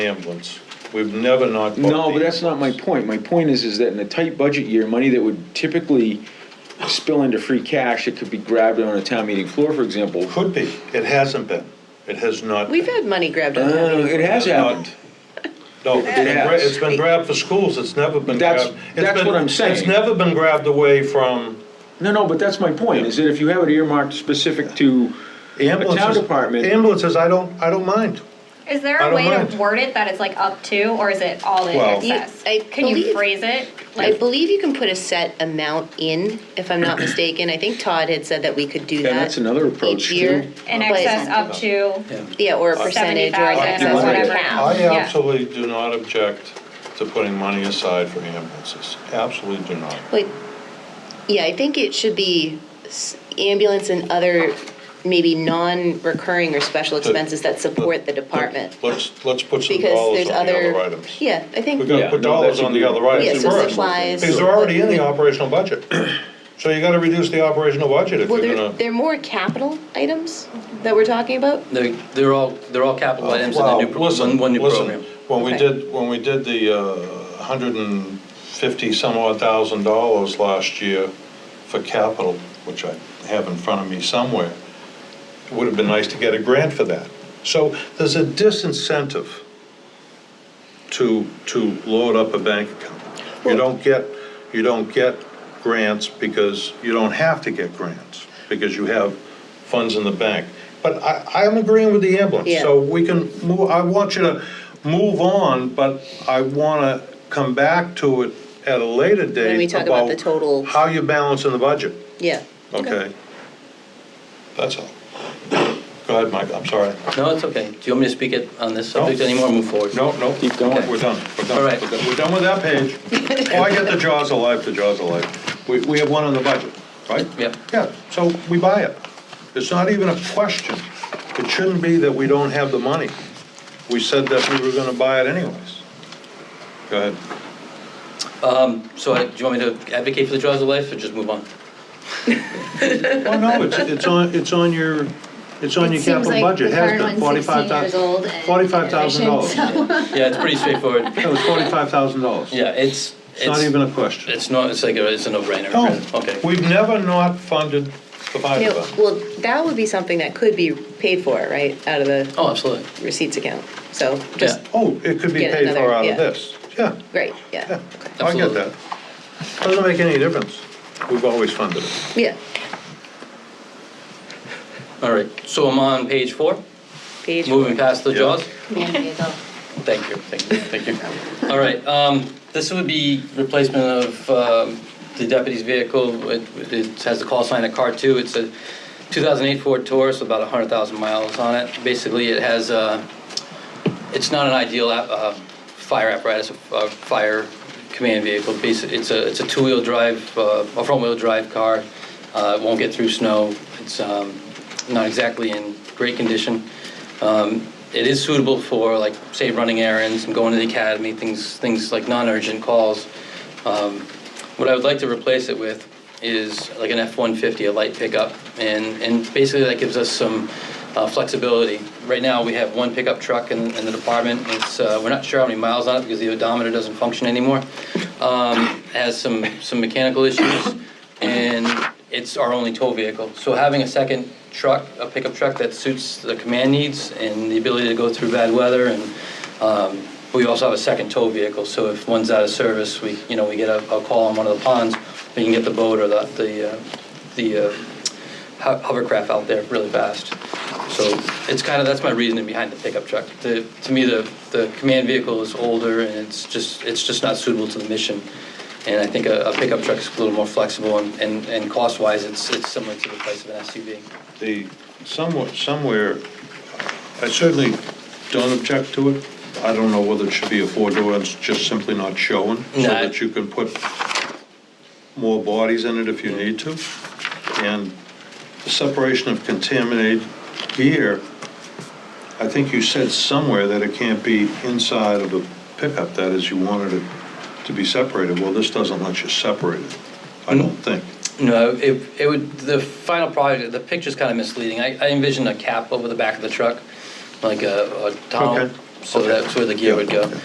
ambulance. We've never not. booked No, the but that's not my ambulance. point. My point is, is that in a tight budget year, money that would typically spill into free cash, it could be grabbed on a town meeting floor, for example. Could be. It hasn't been. It has not. We've had money grabbed out of Uh, meetings. it has happened. No, it's been, gra- has. it's been grabbed for schools. It's never been That's- grabbed. it's that's been- what I'm saying. It's never been grabbed away from No, no, but that's my point, is that if you have it earmarked specific to a ambulances. town department, Ambulances, I don't, I don't mind. Is there I a don't way mind. to word it that it's like up to, or is it all in Well- You- excess? I Can you believe- phrase it? I Like, believe you can put a set amount in, if I'm not mistaken. I think Todd had said that we could do that. Yeah, that's another approach, Each year. too. in but- excess up to, Yeah, or a percentage or 70,000 an or excess, I- whatever. whatever. now, I yeah. absolutely do not object to putting money aside for ambulances. Absolutely do not. Wait, yeah, I think it should be s- ambulance and other maybe non-recurring or special expenses that support the department. Let's, let's put some Because dollars there's on the other. other items. Yeah, I think. We've got to Yeah, put no, dollars that's on the agreeable. other items Yeah, so first. supplies, Because they're already in the like- operational budget. So you gotta reduce the operational budget if Well, you're they're, gonna. they're more capital items that we're talking about. They're, they're all, they're all capital items in the new, pro- Oh, Listen, one, one new listen, program. When we Okay. did, when we did the uh, hundred and fifty some odd thousand dollars last year for capital, which I have in front of me somewhere, it would have been nice to get a grant for that. So there's a disincentive to, to load up a bank account. You don't get, you don't get grants because you don't have to get grants, because you have funds in the bank. But I, I'm agreeing with the ambulance, so we can move, I want you to move on, but I wanna come back to it at a later date. we talk about the total- How you're balancing the budget, Yeah. okay? That's all. Go ahead, Mike, I'm sorry. No, it's okay. Do you want me to speak it on this subject No. anymore, or move forward? No, no. Keep going. We're done, we're done. All right. We're done- We're done with that page. Oh, I get the jaws of life, the jaws of life. We, we have one on the budget, right? Yep. Yeah, so we buy it. It's not even a question. It shouldn't be that we don't have the money. We said that we were gonna buy it anyways. Go ahead. Um, So I- do you want me to advocate for the jaws of life, or just move on? Well, Oh, no, it's, it's on, it's on your, it's on It your capital seems like budget, the has current been, one's forty-five 16 years old thousand, and forty-five thousand dollars. inefficient, That Yeah, it's pretty straightforward. was forty-five thousand dollars. Yeah, it's, It's not it's, even a question. it's not, it's like, a- it's a no-brainer. No, Okay. Oh, we've never not funded the fire No, department. well, that would be something that could be paid for, right, out of the Oh, absolutely. receipts account. So Yeah, just, Oh, it could be Get paid for another- out yeah. of this. Yeah, great, yeah, yeah, I get Absolutely. that. Doesn't make any difference. We've always funded it. yeah. all right. So I'm on page four, Page moving past the Yeah. jaws. Yeah. Thank you, thank you, thank you. All right, um, this would be replacement of, um, the deputy's vehicle. It, it has the call sign of car two. It's a two thousand eight Ford Taurus, with about hundred thousand miles on it. Basically, it has, uh, it's not an ideal, app- uh, fire apparatus, uh, fire command vehicle. Basi- It's a, it's a two-wheel drive, uh, a front-wheel drive car. Uh, it won't get through snow. It's, um, not exactly in great condition. Um, It is suitable for, like, say, running errands and going to the academy, things, things like non-urgent calls. Um, What I would like to replace it with is like an F-150, a light pickup, and, and basically that gives us some uh, flexibility. Right now, we have one pickup truck in, in the department, it's, uh, we're not sure how many miles on it because the odometer doesn't function anymore. Um, it Has some, some mechanical issues, and it's our only tow vehicle. So having a second truck, a pickup truck that suits the command needs and the ability to go through bad weather and um, We also have a second tow vehicle, so if one's out of service, we, you know, we get a, a call on one of the ponds, we can get the boat or the, the, uh, the uh, ho- hovercraft out there really fast. So it's kind of, that's my reasoning behind the pickup truck. The, to me, the, the command vehicle is older and it's just, it's just not suitable to the mission. And I think a, a pickup truck is a little more flexible and, and, and cost-wise, it's, it's similar to the price of an SUV. The, somewhat, somewhere, I certainly don't object to it. I don't know whether it should be a four-door, it's just simply not showing, so No. that you can put more bodies in it if you need to. And the separation of contaminated gear, I think you said somewhere that it can't be inside of a pickup, that is, you wanted it to be separated. Well, this doesn't let you separate it, I don't think. No, it, it would, the final product, the picture's kind of misleading. I, I envisioned a cap over the back of the truck, like a, a Okay. tunnel So that's where the gear would go.